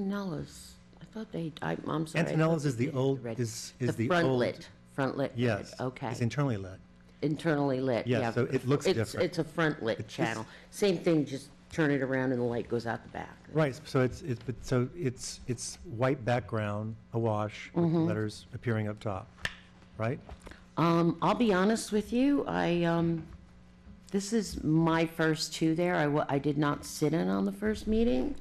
Antonella's, I thought they, I- I'm sorry. I thought Antonella's is they the did old, red- is, is the old. front lit, front lit. red, Yes. Okay, It's internally lit. internally lit, Yeah, yeah. so it looks It's- different. It's a front lit just- channel. Same thing, just turn it around and the light goes out the back. Right, so it's, it's, but so it's, it's white background, awash, with the Mm-hmm. letters appearing up top, right? Um, I'll be honest with you, I, um, this is my first two there. I, wa- I did not sit in on the first meeting.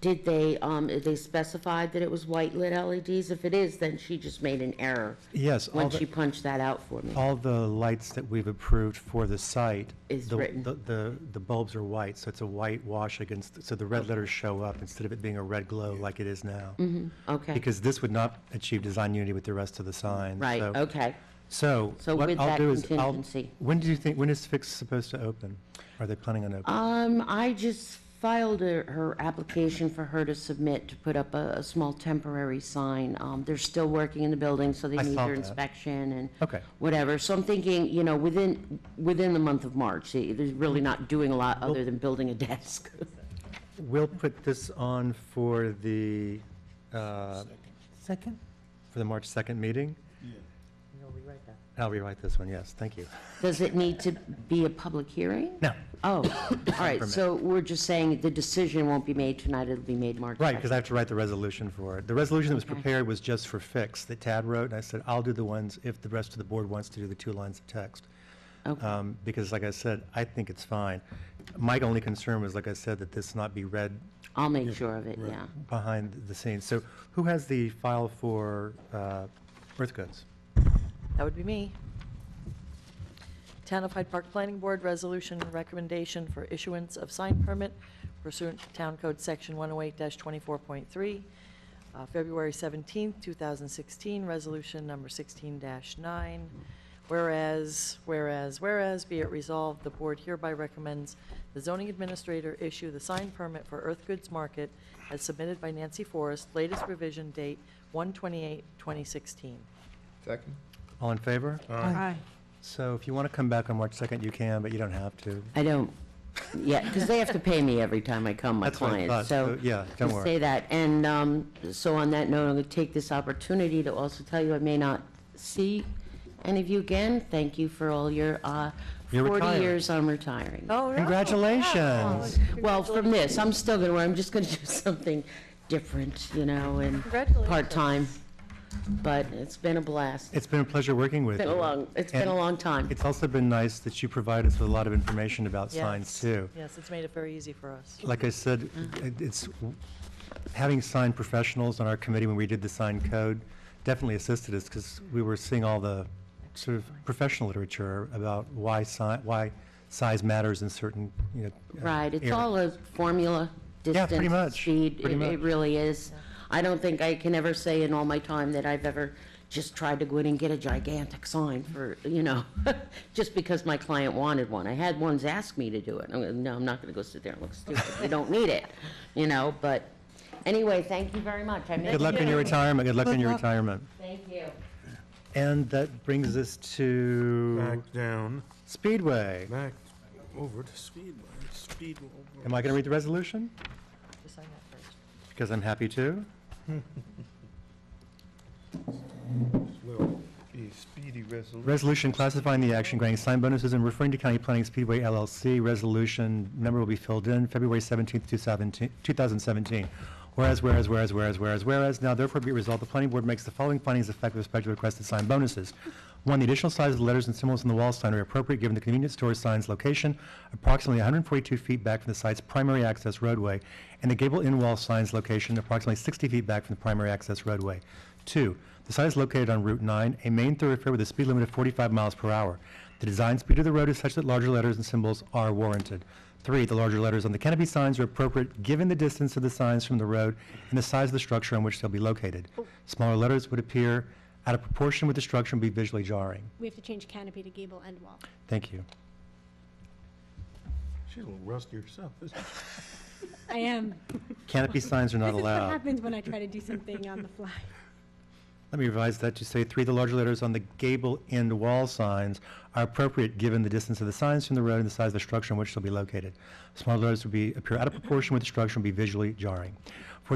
Did they, um, they specified that it was white lit LEDs? If it is, then she just made an error Yes, all when she the, punched that out for me. all the lights that we've approved for the site. Is the- written. The, the the bulbs are white, so it's a white wash against, so the red letters show up instead of it being a red glow like it is now. Mm-hmm. Okay, Because this would not achieve design unity with the rest of the signs. right, so- okay. So So what with I'll that do is, I'll, contingency. when do you think, when is Fix supposed to open? Are they planning on opening? Um, I just filed her, her application for her to submit to put up a, a small temporary sign. Um, they're still working in the building, so they I need saw their that. Oh. inspection and Okay. whatever. So I'm thinking, you know, within, within the month of March, they- they're really not doing a lot other than building a desk. We'll put this on for the, uh, Second? for the March 2nd meeting. You'll rewrite that. I'll rewrite this one, yes, thank you. Does it need to be a public hearing? No, Oh, all right, Temperament. so we're just saying the decision won't be made tonight, it'll be made March right, because 2nd. I have to write the resolution for it. The resolution that was Okay. prepared was just for Fix that Tad wrote, and I said, I'll do the ones if the rest of the board wants to do the two lines of text. Okay. Um, Because like I said, I think it's fine. My only concern was, like I said, that this not be read I'll make sure of it, yeah. behind the scenes. So who has the file for uh, earth goods? That would be me. Town of Hyde Park Planning Board Resolution Recommendation for Issuance of Sign Permit pursuant to Town Code Section 108-24.3, uh, February 17, 2016, Resolution Number 16-9. Whereas, whereas, whereas, be it resolved, the board hereby recommends the zoning administrator issue the sign permit for Earth Goods Market as submitted by Nancy Forrest, latest revision date 1/28/2016. Second? All in favor? Aye. So if you want to come back on March 2nd, you can, but you don't have to. I don't, yeah, because they have to pay me every time I come, my That's what I thought, clients, so. so, yeah, don't just worry. Say that, and, um, so on that note, I'm gonna take this opportunity to also tell you I may not see any of you again. Thank you for all your, uh, You're forty retiring. years, I'm retiring. Oh, no. Congratulations. Well, from this, I'm still gonna, wear- I'm just gonna do something different, you know, and Congratulations. part-time, but it's been a blast. It's It's been a pleasure working with you. been a long, it's been a And long time. It's also been nice that you provided us with a lot of information about signs, Yes. too. Yes, it's made it very easy for us. Like I said, it- it's, having sign professionals on our committee when we did the sign code definitely assisted us because we were seeing all the sort of professional literature about why sign, why size matters in certain, you know. uh, Right, it's areas. all a formula, Yeah, pretty distance, much, speed, it pretty it much. really is. I don't think I can ever say in all my time that I've ever just tried to go in and get a gigantic sign for, you know, just because my client wanted one. I had ones ask me to do it, I'm gonna, no, I'm not gonna go sit there and look stupid, you don't need it, you know, but, anyway, thank you very much, I Good missed luck in your retirement, good luck in your retirement. Thank you. And that brings us to Back down, Speedway. back over to Speedway, Speedway. Am I going to read the resolution? Just sign that first. Because I'm happy to. Will be speedy resolution. Resolution classifying the action, granting sign bonuses, and referring to County Planning Speedway LLC. Resolution number will be filled in February 17th, 2017 2017. Whereas, whereas, whereas, whereas, whereas, whereas, now therefore be it resolved, the planning board makes the following findings of fact with respect to requested sign bonuses. One, the additional size of the letters and symbols on the wall sign are appropriate given the convenience store sign's location approximately 142 feet back from the site's primary access roadway and the gable in wall sign's location approximately 60 feet back from the primary access roadway. Two, the site is located on Route 9, a main thoroughfare with a speed limit of 45 miles per hour. The design speed of the road is such that larger letters and symbols are warranted. Three, the larger letters on the canopy signs are appropriate given the distance of the signs from the road and the size of the structure on which they'll be located. Smaller letters would appear out of proportion with the structure and be visually jarring. We have to change canopy to gable and wall. Thank you. She's a little rusty herself, isn't she? I am. Canopy signs are not This is what allowed. happens when I try to do something on the fly. Let me revise that to say three, the larger letters on the gable end wall signs are appropriate given the distance of the signs from the road and the size of the structure on which they'll be located. Smaller letters would be, appear out of proportion with the structure and be visually jarring. Four,